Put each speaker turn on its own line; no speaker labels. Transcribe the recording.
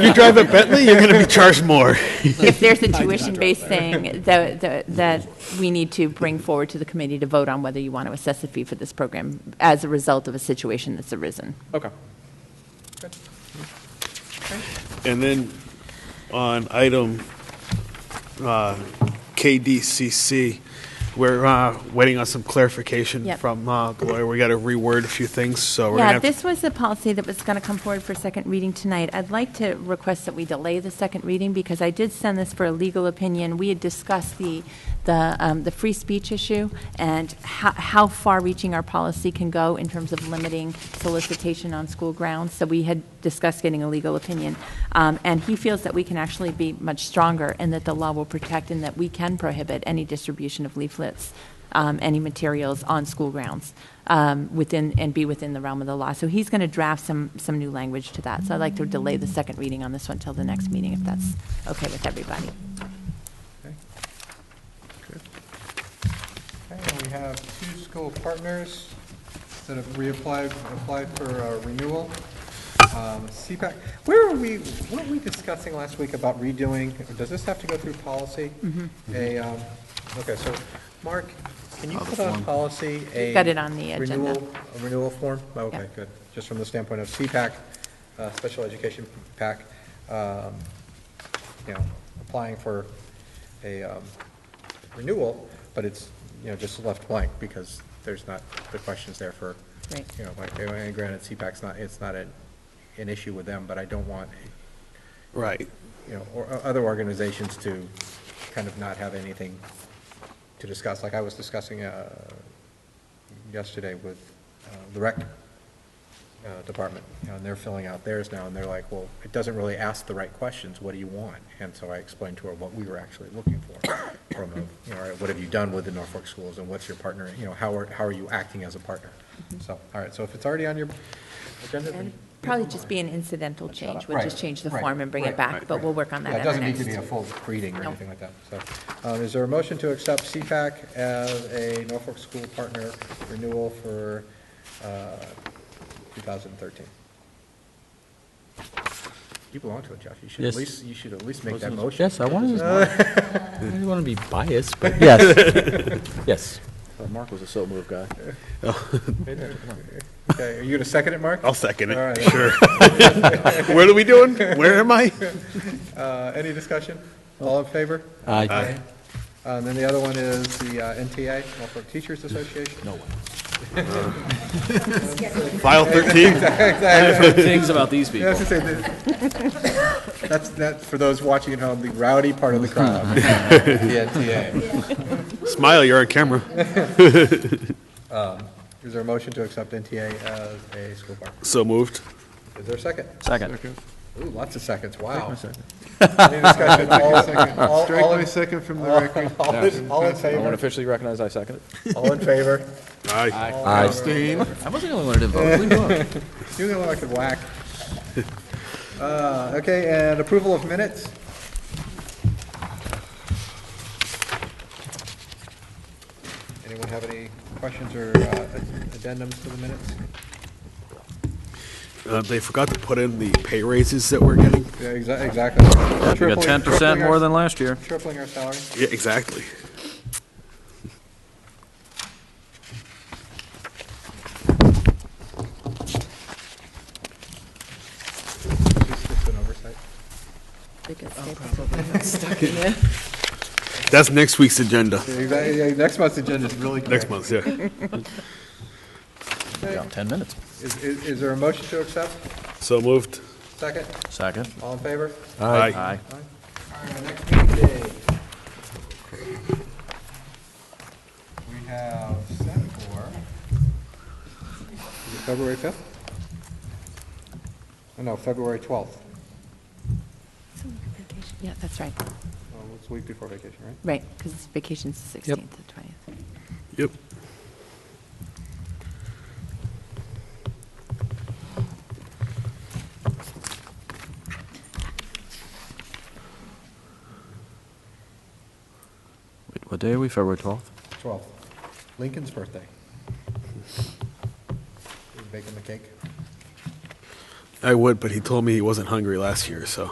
You drive a Bentley, you're going to be charged more.
If there's a tuition-based thing that, that- that we need to bring forward to the committee to vote on whether you want to assess a fee for this program as a result of a situation that's arisen.
Okay.
And then on item uh, KDCC, we're uh, waiting on some clarification
Yep.
from uh, the lawyer. We got to reword a few things, so we're
Yeah,
going to have
this was the policy that was going to come forward for second reading tonight. I'd like to request that we delay the second reading because I did send this for a legal opinion. We had discussed the, the, um, the free speech issue and how, how far-reaching our policy can go in terms of limiting solicitation on school grounds. So we had discussed getting a legal opinion. Um, and he feels that we can actually be much stronger and that the law will protect and that we can prohibit any distribution of leaflets um, any materials on school grounds um, within, and be within the realm of the law. So he's going to draft some, some new language to that. So I'd like to delay the second reading on this one till the next meeting, if that's okay with everybody.
Okay, and we have two school partners that have reapplied, applied for uh, renewal. Um, CPAC, where were we, what were we discussing last week about redoing? Does this have to go through policy?
Mm-hmm.
A, um, okay, so, Mark, can you put on policy a?
Got it on the agenda.
renewal- A renewal form? Oh, Okay,
Yeah.
good. Just from the standpoint of CPAC, uh, Special Education PAC, um, you know, applying for a um, renewal, but it's, you know, just left blank because there's not, the question's there for,
Right.
you know, like, and granted, CPAC's not, it's not an, an issue with them, but I don't want,
right.
you know, or, or other organizations to kind of not have anything to discuss. Like I was discussing, uh, yesterday with, uh, the rec, uh, department, you know, and they're filling out theirs now, and they're like, well, it doesn't really ask the right questions, what do you want? And so I explained to her what we were actually looking for, from, a, you know, all right, what have you done with the Norfolk schools, and what's your partner, you know, how are, how are you acting as a partner? So, all right, so if it's already on your agenda, then.
Mm-hmm. And probably just be an incidental change, which is
Right,
change the
right,
form and bring it
right,
back,
right,
but we'll
right.
work on that
Yeah,
at our
It doesn't need to be a
next.
full reading or
No.
anything like that, so. um, Is there a motion to accept CPAC as a Norfolk School Partner renewal for uh, 2013? You belong to it, Jeff. You should at
Yes.
least, you should at least make that motion.
Yes, I wanted to, I didn't want to be biased, but yes, yes.
Mark was a so move guy.
Okay, are you going to second it, Mark?
Oh.
I'll second
All
it.
right.
Sure. What are we doing? Where am I?
Uh, Any discussion? All in favor?
I
Uh, And then the other one is the uh, NTA, Norfolk Teachers Association. No.
File 13?
Things about these people.
Yes, I say that. That's, that, for those watching at home, the rowdy part of the crowd. The NTA.
Smile, you're on camera.
Is there a motion to accept NTA as a school park?
So moved.
Is there a second?
Second.
Ooh, lots of seconds, wow. Any discussion? All- all-
Strike
all
my
in-
second from the
all-
record.
All in all
I
in
want to
favor?
officially recognize I second it.
All in favor?
Aye.
Abstain.
I wasn't the only one to vote. Leave me alone.
You know I could whack. Uh, Okay, and approval of minutes? Anyone have any questions or uh, addendums to the minutes?
Uh, They forgot to put in the pay raises that we're getting.
Yeah, exa- exactly.
We
Tripling-
got ten
tripling
percent more
our-
than last year.
Tripling our salary.
Yeah, exactly.
Is this just an oversight?
Um,
That's next week's agenda.
Yeah, Exactly, yeah, next month's agenda is really
Next
quick.
month, yeah.
Got Ten minutes.
Is, is is there a motion to accept?
So moved.
Second?
Second.
All in favor?
Aye.
Aye.
Next meeting day. We have set for is it February 5th? Oh, No, February 12th.
Yeah, that's right.
Well, It's a week before vacation, right?
Right, because vacation's the 16th to 20th.
Yep.
Wait, What day are we? February twelfth?
12th. Lincoln's birthday. You Baking the cake?
I would, but he told me he wasn't hungry last year, so.